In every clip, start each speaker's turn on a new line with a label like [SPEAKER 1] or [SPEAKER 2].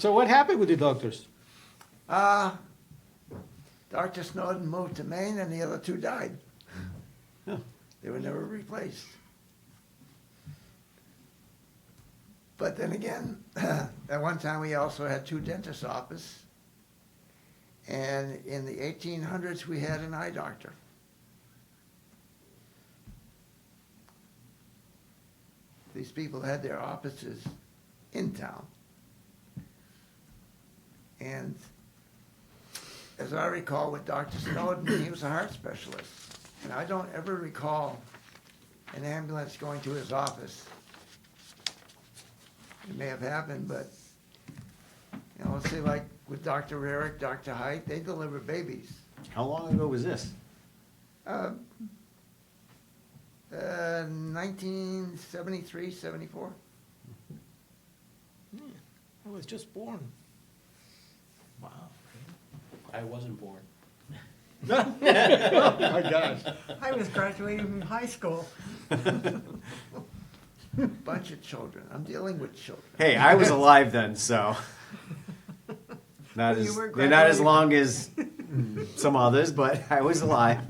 [SPEAKER 1] So what happened with the doctors?
[SPEAKER 2] Uh, Dr. Snowden moved to Maine and the other two died.
[SPEAKER 1] Yeah.
[SPEAKER 2] They were never replaced. But then again, at one time we also had two dentist office. And in the eighteen hundreds, we had an eye doctor. These people had their offices in town. And as I recall with Dr. Snowden, he was a heart specialist. And I don't ever recall an ambulance going to his office. It may have happened, but, you know, let's say like with Dr. Rarick, Dr. Height, they deliver babies.
[SPEAKER 1] How long ago was this?
[SPEAKER 2] Uh, uh, 1973, 74?
[SPEAKER 3] I was just born.
[SPEAKER 4] Wow. I wasn't born.
[SPEAKER 1] My gosh.
[SPEAKER 5] I was graduating from high school.
[SPEAKER 2] Bunch of children. I'm dealing with children.
[SPEAKER 6] Hey, I was alive then, so not
[SPEAKER 5] You
[SPEAKER 6] as
[SPEAKER 5] were
[SPEAKER 6] they're not as
[SPEAKER 5] graduating.
[SPEAKER 6] long as some others, but I was alive.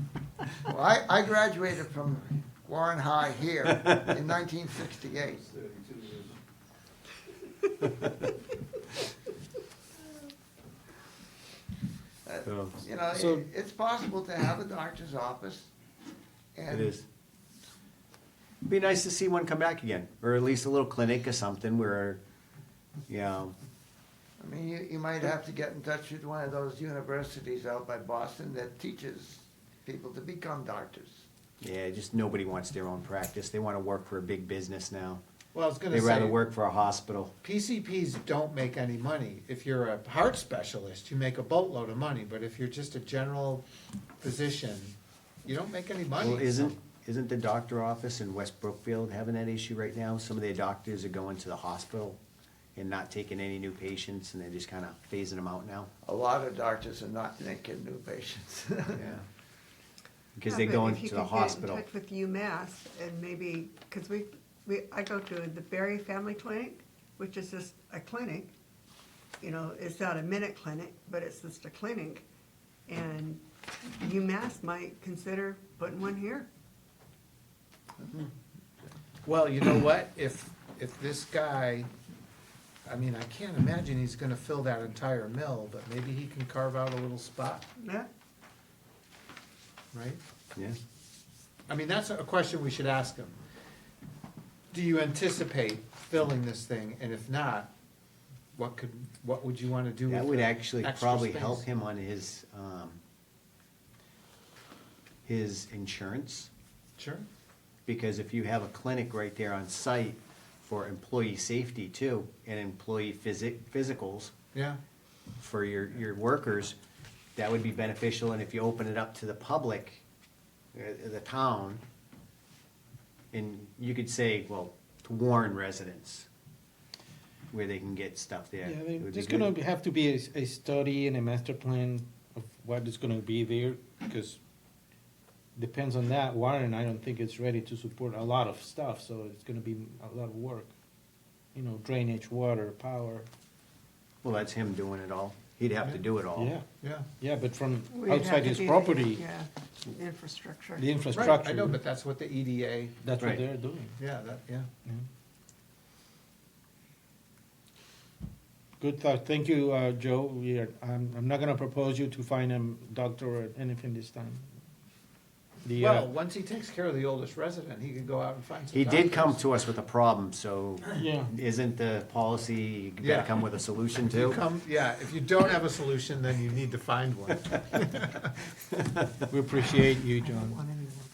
[SPEAKER 2] Well, I, I graduated from Warren High here in 1968.
[SPEAKER 6] So
[SPEAKER 2] You know,
[SPEAKER 1] So-
[SPEAKER 2] it, it's possible to have a doctor's office.
[SPEAKER 6] it
[SPEAKER 2] And
[SPEAKER 6] is. Be nice to see one come back again, or at least a little clinic or something where, you know,
[SPEAKER 2] I mean, you, you might have to get in touch with one of those universities out by Boston that teaches people to become doctors.
[SPEAKER 6] yeah, just nobody wants their own practice. They want to work for a big business now.
[SPEAKER 3] Well, I was gonna
[SPEAKER 6] They'd rather
[SPEAKER 3] say,
[SPEAKER 6] work for a hospital.
[SPEAKER 3] PCPs don't make any money. If you're a heart specialist, you make a boatload of money, but if you're just a general physician, you don't make any money.
[SPEAKER 6] Well, isn't isn't the doctor office in West Brookfield having that issue right now? Some of their doctors are going to the hospital and not taking any new patients, and they're just kind of phasing them out now.
[SPEAKER 2] A lot of doctors are not taking new patients.
[SPEAKER 6] Because
[SPEAKER 5] Yeah,
[SPEAKER 6] they're
[SPEAKER 5] but
[SPEAKER 6] going
[SPEAKER 5] if you
[SPEAKER 6] to the
[SPEAKER 5] could
[SPEAKER 6] hospital.
[SPEAKER 5] Get in touch with UMass and maybe, because we, we, I go to the Berry Family Clinic, which is just a clinic. You know, it's not a minute clinic, but it's just a clinic. And UMass might consider putting one here.
[SPEAKER 3] Well, you know what, if, if this guy, I mean, I can't imagine he's gonna fill that entire mill, but maybe he can carve out a little spot,
[SPEAKER 5] Yeah,
[SPEAKER 3] right?
[SPEAKER 6] Yeah.
[SPEAKER 3] I mean, that's a question we should ask him. Do you anticipate filling this thing, and if not, what could, what would you wanna do with
[SPEAKER 6] That would
[SPEAKER 3] the
[SPEAKER 6] actually
[SPEAKER 3] extra
[SPEAKER 6] probably
[SPEAKER 3] space?
[SPEAKER 6] help him on his, um, his insurance,
[SPEAKER 3] Sure,
[SPEAKER 6] because if you have a clinic right there on site for employee safety too, and employee physic, physicals
[SPEAKER 3] yeah,
[SPEAKER 6] for your, your workers, that would be beneficial, and if you open it up to the public, uh, the town, and you could say, well, to Warren residents, where they can get stuff there.
[SPEAKER 7] Yeah,
[SPEAKER 6] it
[SPEAKER 7] there-
[SPEAKER 6] would be
[SPEAKER 7] there's
[SPEAKER 6] good.
[SPEAKER 7] gonna be- have to be a, s- a study and a master plan of what is gonna be there, because depends on that, Warren, I don't think it's ready to support a lot of stuff, so it's gonna be a lot of work. You know, drainage, water, power,
[SPEAKER 6] Well, that's him doing it all. He'd have to do it all.
[SPEAKER 7] yeah,
[SPEAKER 3] yeah.
[SPEAKER 7] yeah, but from
[SPEAKER 5] We'd have
[SPEAKER 7] outside
[SPEAKER 5] to
[SPEAKER 7] his
[SPEAKER 5] do the-
[SPEAKER 7] property,
[SPEAKER 5] Yeah, infrastructure.
[SPEAKER 7] the
[SPEAKER 3] Right, I know,
[SPEAKER 7] infrastructure,
[SPEAKER 3] but that's what the EDA,
[SPEAKER 7] that's what
[SPEAKER 6] Right.
[SPEAKER 7] they're doing.
[SPEAKER 3] yeah, that, yeah.
[SPEAKER 7] Yeah. Good thought, thank you, uh, Joe, we are, I'm, I'm not gonna propose you to find a doctor or anything this time. The, uh,
[SPEAKER 3] Well, once he takes care of the oldest resident, he could go out and find some.
[SPEAKER 6] He did come
[SPEAKER 3] doctors.
[SPEAKER 6] to us with a problem, so
[SPEAKER 7] yeah,
[SPEAKER 6] isn't the policy, you
[SPEAKER 3] Yeah.
[SPEAKER 6] gotta come with a solution
[SPEAKER 3] You
[SPEAKER 6] too?
[SPEAKER 3] come, yeah, if you don't have a solution, then you need to find one.
[SPEAKER 7] we appreciate you, John.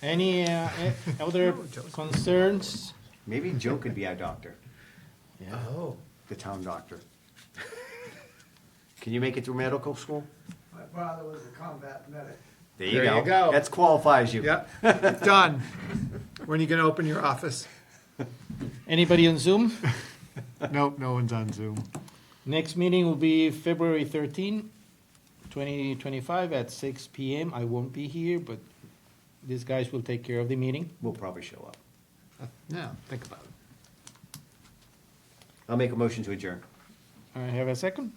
[SPEAKER 7] Any, uh, eh, other
[SPEAKER 3] No, Joe's-
[SPEAKER 7] concerns?
[SPEAKER 6] Maybe Joe could be our doctor,
[SPEAKER 3] Oh,
[SPEAKER 6] the town doctor. Can you make it through medical school?
[SPEAKER 2] My father was a combat medic.
[SPEAKER 6] There you
[SPEAKER 3] There
[SPEAKER 6] go.
[SPEAKER 3] you go.
[SPEAKER 6] That's qualifies you.
[SPEAKER 3] yep, done. When are you gonna open your office?
[SPEAKER 7] Anybody on Zoom?
[SPEAKER 3] Nope, no one's on Zoom.
[SPEAKER 7] Next meeting will be February 13, 2025 at six PM. I won't be here, but these guys will take care of the meeting.
[SPEAKER 6] We'll probably show up.
[SPEAKER 3] No, think about it.
[SPEAKER 6] I'll make a motion to adjourn.
[SPEAKER 7] I have a second?